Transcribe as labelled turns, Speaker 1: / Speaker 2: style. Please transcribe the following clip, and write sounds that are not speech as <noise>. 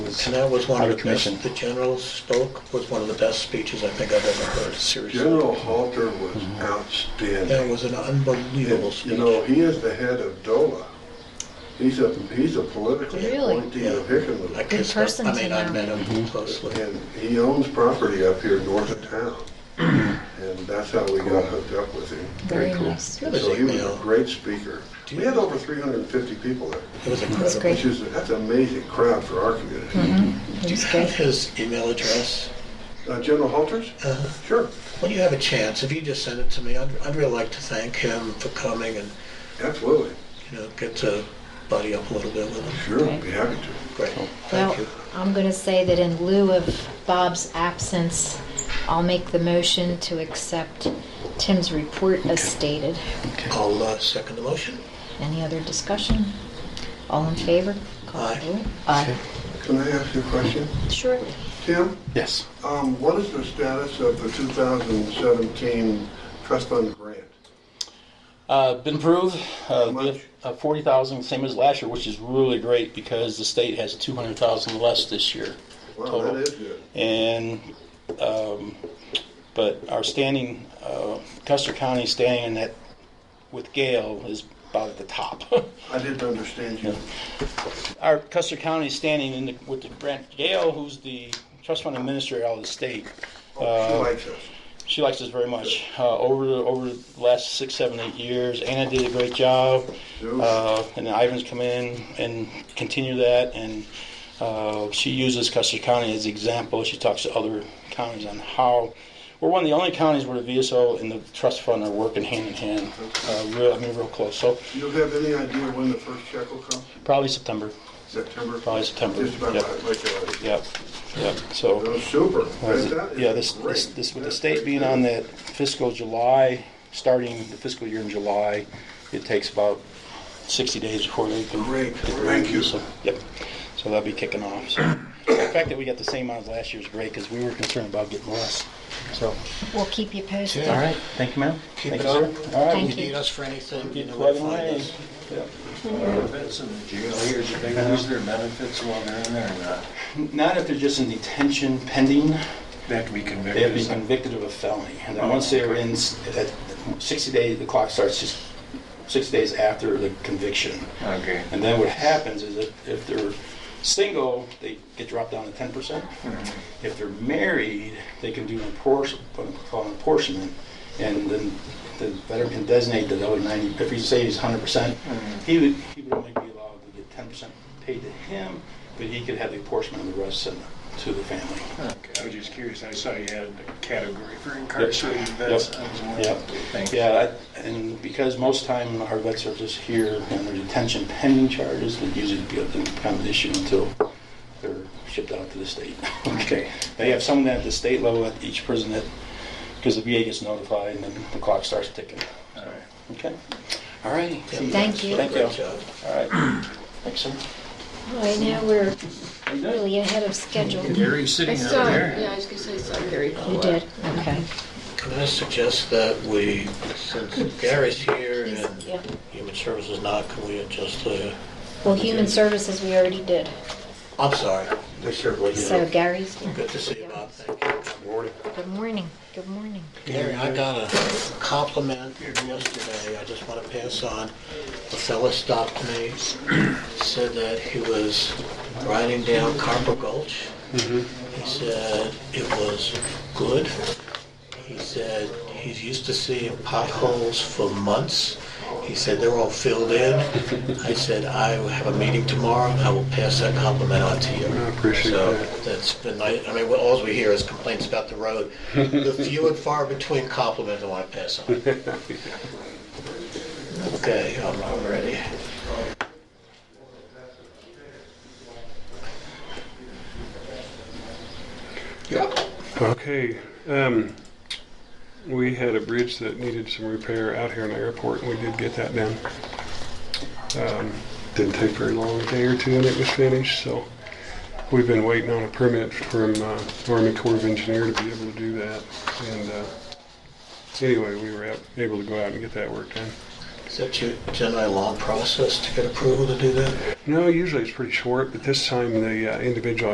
Speaker 1: is
Speaker 2: And that was one
Speaker 1: out
Speaker 2: of
Speaker 1: of
Speaker 2: the
Speaker 1: commission.
Speaker 2: best, the General Stoke was one of the best speeches I think I've ever heard, seriously.
Speaker 3: General Halter was
Speaker 2: That
Speaker 3: outstanding.
Speaker 2: was an unbelievable
Speaker 3: And,
Speaker 2: speech.
Speaker 3: You know, he is the head of DOLA. He's a, he's a political
Speaker 4: Really?
Speaker 3: appointee of
Speaker 2: I
Speaker 3: Hickenlooper.
Speaker 2: kissed him.
Speaker 4: person
Speaker 2: I
Speaker 4: to
Speaker 2: mean, I
Speaker 4: know.
Speaker 2: met
Speaker 5: Mm-hmm.
Speaker 2: him closely.
Speaker 3: And he owns property up here north of town. And that's how we got hooked up with him.
Speaker 4: Very
Speaker 1: Very cool.
Speaker 4: nice.
Speaker 2: It was
Speaker 3: So he was a
Speaker 2: email.
Speaker 3: great speaker. We had over 350 people there,
Speaker 2: It was incredible.
Speaker 4: great.
Speaker 3: which is, that's an amazing crowd for our community.
Speaker 4: It
Speaker 2: Do you
Speaker 4: was
Speaker 2: have
Speaker 4: great.
Speaker 2: his email address?
Speaker 3: Uh, General Halter's?
Speaker 2: Uh,
Speaker 3: Sure,
Speaker 2: When you have a chance, if you just send it to me, I'd, I'd really like to thank him for coming and,
Speaker 3: absolutely,
Speaker 2: you know, get to buddy up a little bit with him.
Speaker 3: sure,
Speaker 4: Okay.
Speaker 3: be happy to.
Speaker 2: Great,
Speaker 5: Oh.
Speaker 4: Well,
Speaker 2: thank you.
Speaker 4: I'm going to say that in lieu of Bob's absence, I'll make the motion to accept Tim's report as stated.
Speaker 1: Okay.
Speaker 2: I'll uh, second the motion.
Speaker 4: Any other discussion? All in favor? Call the
Speaker 2: Aye.
Speaker 4: vote. Aye.
Speaker 3: Can I ask you a question?
Speaker 4: Sure.
Speaker 3: Tim,
Speaker 1: Yes.
Speaker 3: um, what is the status of the 2017 trust fund grant?
Speaker 5: Uh, been approved, uh,
Speaker 3: much?
Speaker 5: uh, forty thousand, same as last year, which is really great because the state has two hundred thousand less this year.
Speaker 3: Wow,
Speaker 5: Total.
Speaker 3: that is good.
Speaker 5: And, um, but our standing, uh, Custer County standing at, with Gale is about at the top. <laughs>
Speaker 3: I didn't understand you.
Speaker 5: our Custer County standing in the, with the Brent Gale, who's the trust fund administrator out of the state.
Speaker 3: Oh,
Speaker 5: Uh,
Speaker 3: She likes us.
Speaker 5: She likes us very much. Uh, over the over the last six, seven, eight years, Anna did a great job, uh, and Ivan's come in and continue that. And uh, she uses Custer County as an example. She talks to other counties on how we're one of the only counties where the VSO and the trust fund are working hand in hand. Uh, real, I mean, real close. So
Speaker 3: Do you have any idea when the first check will come?
Speaker 5: probably September.
Speaker 3: September?
Speaker 5: Probably September,
Speaker 3: Just about
Speaker 5: yep.
Speaker 3: like like, uh,
Speaker 5: Yep. Yep. So.
Speaker 3: Oh, super.
Speaker 5: Was it-
Speaker 3: That is
Speaker 5: Yeah, this,
Speaker 3: great.
Speaker 5: this, this, with the
Speaker 3: That's
Speaker 5: state
Speaker 3: great.
Speaker 5: being on that fiscal July, starting the fiscal year in July, it takes about sixty days before they can.
Speaker 3: Great.
Speaker 5: get the
Speaker 3: Thank
Speaker 5: revenue,
Speaker 3: you.
Speaker 5: so- Yep, so that'll be kicking off, so. The fact that we got the same amount as last year's great, because we were concerned about getting less, so.
Speaker 4: We'll keep you posted.
Speaker 5: All right, thank you, ma'am.
Speaker 2: Keep
Speaker 5: Thank
Speaker 2: it
Speaker 5: you, sir.
Speaker 2: up.
Speaker 5: All right.
Speaker 4: Thank
Speaker 2: If you
Speaker 4: you.
Speaker 2: need us for anything, you
Speaker 5: Keep
Speaker 2: know where to
Speaker 5: plugging
Speaker 2: find
Speaker 5: away.
Speaker 2: us.
Speaker 5: Yep.
Speaker 6: benefits in the jail here, do they lose their benefits while they're in there or not?
Speaker 5: Not if they're just in detention pending,
Speaker 6: They have to be convicted.
Speaker 5: They have
Speaker 6: or
Speaker 5: to be
Speaker 6: something?
Speaker 5: convicted of a felony, and then once they're in, s- at 60 days, the clock starts just 60 days after the conviction.
Speaker 6: Okay.
Speaker 5: And then what happens is if, if they're single, they get dropped down to 10%. If they're married, they can do an apportion- what we call an apportionment, and then the veteran can designate the other 90, if he say he's 100%, he would, he would only be allowed to get 10% paid to him, but he could have the apportionment of the rest sent to the family.
Speaker 6: Okay, I was just curious, I saw you had a category for incarcerated
Speaker 5: Yep.
Speaker 6: vets. I was wondering.
Speaker 5: Yep.
Speaker 6: Thanks.
Speaker 5: Yeah, I- and because most time our vets are just here and their detention pending charges, it usually be a- become an issue until they're shipped out to the state. <laughs>
Speaker 6: Okay.
Speaker 5: They have someone at the state level at each prison that, because the VA gets notified and then the clock starts ticking.
Speaker 6: All right.
Speaker 5: Okay? All righty.
Speaker 2: Yeah,
Speaker 4: Thank you.
Speaker 5: Thank you.
Speaker 2: Great job.
Speaker 5: All right. Thanks, sir.
Speaker 4: All right, now we're really ahead of schedule. You
Speaker 6: Gary's
Speaker 7: I
Speaker 6: sitting
Speaker 7: saw,
Speaker 6: over there.
Speaker 7: yeah, I was gonna say, I saw Gary.
Speaker 4: did, okay.
Speaker 2: Can I suggest that we, since Gary's here and
Speaker 4: Yeah.
Speaker 2: Human Services is not, can we adjust the,
Speaker 4: Well, human services, we already did.
Speaker 2: I'm sorry.
Speaker 3: Take care, Blake.
Speaker 4: So Gary's,
Speaker 2: Good to see you, Bob, thank you.
Speaker 4: good morning, good morning.
Speaker 2: Gary, I got a compliment yesterday, I just want to pass on. A fella stopped me, said that he was riding down Carper Gulch. He said it was good. He said he's used to seeing potholes for months. He said they're all filled in. I said, I have a meeting tomorrow, I will pass that compliment on to you. I appreciate that. That's been, nice. I mean, well, all we hear is complaints about the road. The few and far between compliments I want to pass on. Okay, I'm I'm ready.
Speaker 8: Okay, um, we had a bridge that needed some repair out here in the airport, and we did get that done. Um, didn't take very long, a day or two, and it was finished, so we've been waiting on a permit from, uh, Army Corps of Engineer to be able to do that, and, uh, anyway, we were out, able to go out and get that work done.
Speaker 2: Is that your generally long process to get approval to do that?
Speaker 8: No, usually it's pretty short, but this time the uh, individual